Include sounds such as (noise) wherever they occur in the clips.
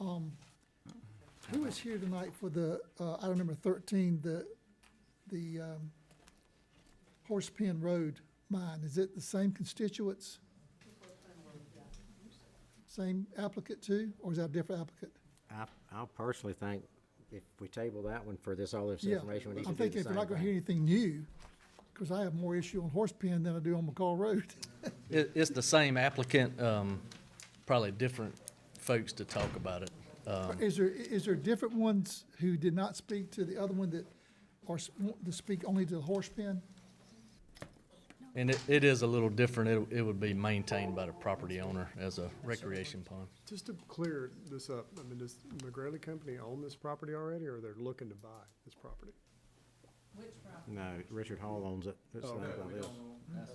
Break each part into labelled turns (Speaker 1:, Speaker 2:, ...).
Speaker 1: Um, Who was here tonight for the, uh, item number thirteen, the, the, um, Horse Pen Road mine? Is it the same constituents? Same applicant too, or is that a different applicant?
Speaker 2: I, I personally think if we table that one for this, all this
Speaker 1: Yeah,
Speaker 2: information, we need to
Speaker 1: I'm
Speaker 2: do the
Speaker 1: thinking if we're
Speaker 2: same
Speaker 1: not gonna hear
Speaker 2: thing.
Speaker 1: anything new, because I have more issue on Horse Pen than I do on McCall Road.
Speaker 3: It, it's the same applicant, um, probably different folks to talk about it. Uh,
Speaker 2: Um.
Speaker 1: Is there, is there different ones who did not speak to the other one that, or want to speak only to the Horse Pen?
Speaker 3: And it, it is a little different. It, it would be maintained by the property owner as a recreation pond.
Speaker 4: Just to clear this up, I mean, does McGrady Company own this property already, or they're looking to buy this property?
Speaker 2: No, Richard Hall owns it. It's
Speaker 4: Oh,
Speaker 2: not
Speaker 4: okay.
Speaker 2: like this.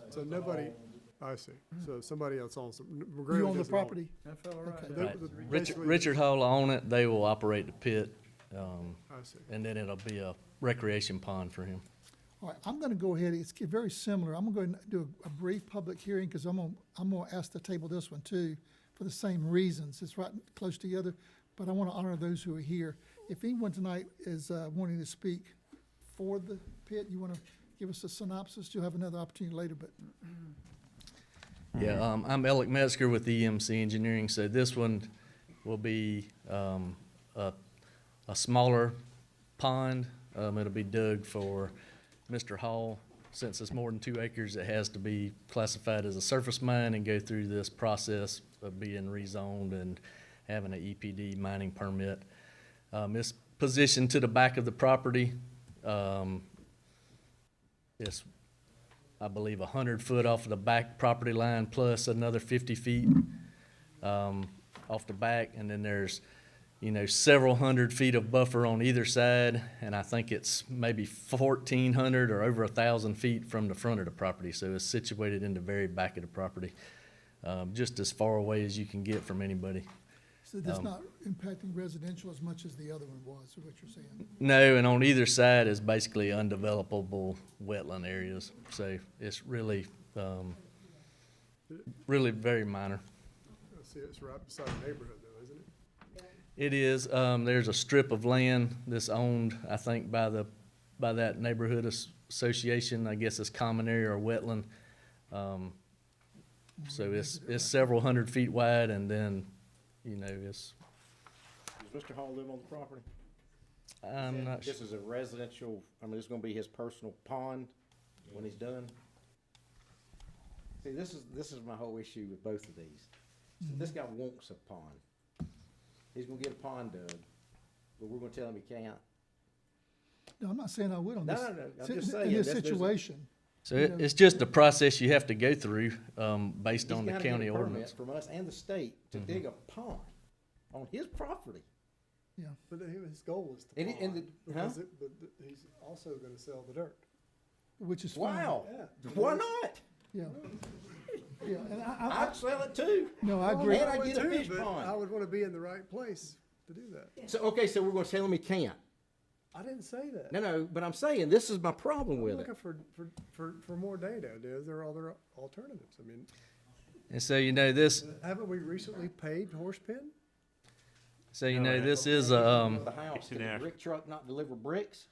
Speaker 4: So nobody, I see, so somebody else owns it. M- McGrady
Speaker 1: Mm-hmm. You own the
Speaker 4: doesn't own it.
Speaker 1: property? Okay.
Speaker 4: They-
Speaker 3: Right.
Speaker 4: the-
Speaker 3: Richard,
Speaker 4: basically-
Speaker 3: Richard Hall will own it. They will operate the pit, um,
Speaker 4: I see,
Speaker 3: and then it'll be a recreation pond for him.
Speaker 1: All right, I'm gonna go ahead, it's ki- very similar, I'm gonna go ahead and do a- a brief public hearing, because I'm gonna, I'm gonna ask to table this one too, for the same reasons, it's right close together, but I wanna honor those who are here. If anyone tonight is, uh, wanting to speak for the pit, you wanna give us a synopsis, you'll have another opportunity later, but
Speaker 3: Yeah, um, I'm Alec Metzger with EMC Engineering, so this one will be, um, a, a smaller pond. Um, it'll be dug for Mr. Hall. Since it's more than two acres, it has to be classified as a surface mine and go through this process of being rezoned and having an EPD mining permit. Um, it's positioned to the back of the property. Um, it's I believe, a hundred foot off of the back property line, plus another fifty feet, um, off the back, and then there's, you know, several hundred feet of buffer on either side, and I think it's maybe fourteen hundred or over a thousand feet from the front of the property, so it's situated in the very back of the property, um, just as far away as you can get from anybody.
Speaker 1: so that's
Speaker 2: Um,
Speaker 1: not impacting residential as much as the other one was, is what you're saying.
Speaker 3: No, and on either side is basically undevelopable wetland areas, so it's really, um, really very minor.
Speaker 4: I see, it's right beside the neighborhood though, isn't it?
Speaker 3: It is, um, there's a strip of land that's owned, I think, by the, by that neighborhood as- association, I guess it's common area or wetland. Um, so it's, it's several hundred feet wide and then, you know, it's,
Speaker 2: Does Mr. Hall live on the property?
Speaker 3: I'm not sure.
Speaker 2: This is a residential, I mean, this is gonna be his personal pond when he's done. See, this is, this is my whole issue with both of these. So This guy wants a pond. He's gonna get a pond dug, but we're gonna tell him he can't.
Speaker 1: No, I'm not saying I would on
Speaker 2: No,
Speaker 1: this.
Speaker 2: no, no, I'm
Speaker 1: si-
Speaker 2: just
Speaker 1: in-
Speaker 2: saying,
Speaker 1: In this
Speaker 2: that's- there's a-
Speaker 1: situation,
Speaker 3: So it, it's just the process you have to go through, um, based
Speaker 2: He's
Speaker 3: on the
Speaker 2: gotta get a
Speaker 3: county
Speaker 2: permit
Speaker 3: ordinance. Mm-hmm.
Speaker 2: From us and the state to dig a pond on his property.
Speaker 1: yeah.
Speaker 4: But he- his goal is to
Speaker 2: And it- and
Speaker 4: pond,
Speaker 2: the- huh?
Speaker 4: because it- but th- he's also gonna sell the dirt.
Speaker 1: Which is fine.
Speaker 2: Wow,
Speaker 4: Yeah.
Speaker 2: why not?
Speaker 1: Yeah. Yeah, and I, I,
Speaker 2: I'd sell it too.
Speaker 1: No, I agree.
Speaker 2: Oh, And I
Speaker 4: would
Speaker 2: get a
Speaker 4: too,
Speaker 2: fish
Speaker 4: but I
Speaker 2: pond.
Speaker 4: would wanna be in the right place to do that.
Speaker 2: So, okay, so we're gonna tell him he can't.
Speaker 4: I didn't say that.
Speaker 2: No, no, but I'm saying, this is my problem
Speaker 4: I'm
Speaker 2: with it.
Speaker 4: looking for, for, for, for more data, dude. There are other alternatives. I mean,
Speaker 3: And so, you know, this,
Speaker 4: haven't we recently paid Horsepen?
Speaker 3: so, you know, this is, a, um,
Speaker 2: The house, did the brick truck not deliver bricks?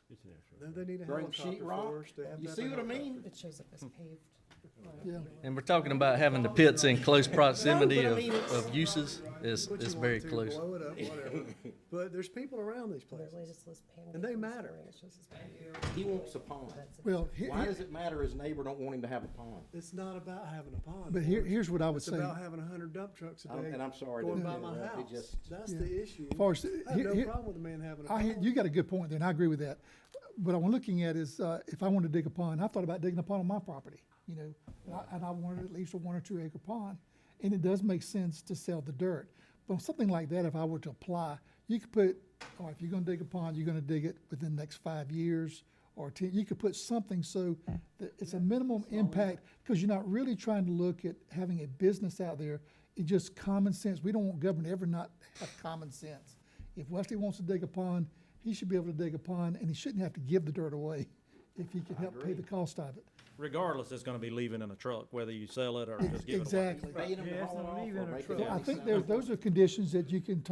Speaker 4: Then they need a
Speaker 2: Bring
Speaker 4: helicopter
Speaker 2: sheet
Speaker 4: for
Speaker 2: rock?
Speaker 4: us to have
Speaker 2: You
Speaker 4: that
Speaker 2: see what I
Speaker 4: helicopter.
Speaker 2: mean?
Speaker 5: It shows up as paved.
Speaker 1: yeah,
Speaker 3: And we're talking about having the pits in close proximity
Speaker 2: No, but I
Speaker 3: of,
Speaker 2: mean, it's-
Speaker 3: of uses is,
Speaker 4: What you
Speaker 3: is
Speaker 4: want
Speaker 3: very
Speaker 4: to,
Speaker 3: close.
Speaker 4: Blow
Speaker 2: (laughs)
Speaker 4: it up, whatever. But there's people around these
Speaker 5: The
Speaker 4: places.
Speaker 5: latest list paved.
Speaker 4: And they matter.
Speaker 5: It shows as paved.
Speaker 2: He wants a pond.
Speaker 1: well, he-
Speaker 2: Why
Speaker 1: he-
Speaker 2: does it matter his neighbor don't want him to have a pond?
Speaker 4: It's not about having a pond.
Speaker 1: but here,
Speaker 4: Lawrence.
Speaker 1: here's what I would
Speaker 4: It's
Speaker 1: say.
Speaker 4: about having a hundred dump trucks a
Speaker 2: I'm-
Speaker 4: day.
Speaker 2: and I'm sorry to
Speaker 4: Going by my
Speaker 2: interrupt, it
Speaker 4: house.
Speaker 2: just-
Speaker 4: That's
Speaker 1: Yeah.
Speaker 4: the issue.
Speaker 1: Forrest,
Speaker 4: I have
Speaker 1: here-
Speaker 4: no
Speaker 1: here-
Speaker 4: problem with a man having a
Speaker 1: I, hear-
Speaker 4: pond.
Speaker 1: you got a good point there, and I agree with that. What I'm looking at is, uh, if I wanted to dig a pond, I thought about digging a pond on my property, you know, and I, and I wanted at least a one or two acre pond, and it does make sense to sell the dirt. But on something like that, if I were to apply, you could put, all right, if you're gonna dig a pond, you're gonna dig it within the next five years or ten, you could put something so that it's a minimum impact, because you're not really trying to look at having a business out there. It's just common sense. We don't want government to ever not have common sense. If Wesley wants to dig a pond, he should be able to dig a pond, and he shouldn't have to give the dirt away if he can help pay the cost of it.
Speaker 6: regardless, it's gonna be leaving in a truck, whether you sell it or just give it away.
Speaker 1: Exactly.
Speaker 2: Paying him to haul it off or making
Speaker 1: So I
Speaker 2: him
Speaker 1: think there's, those are conditions that you can talk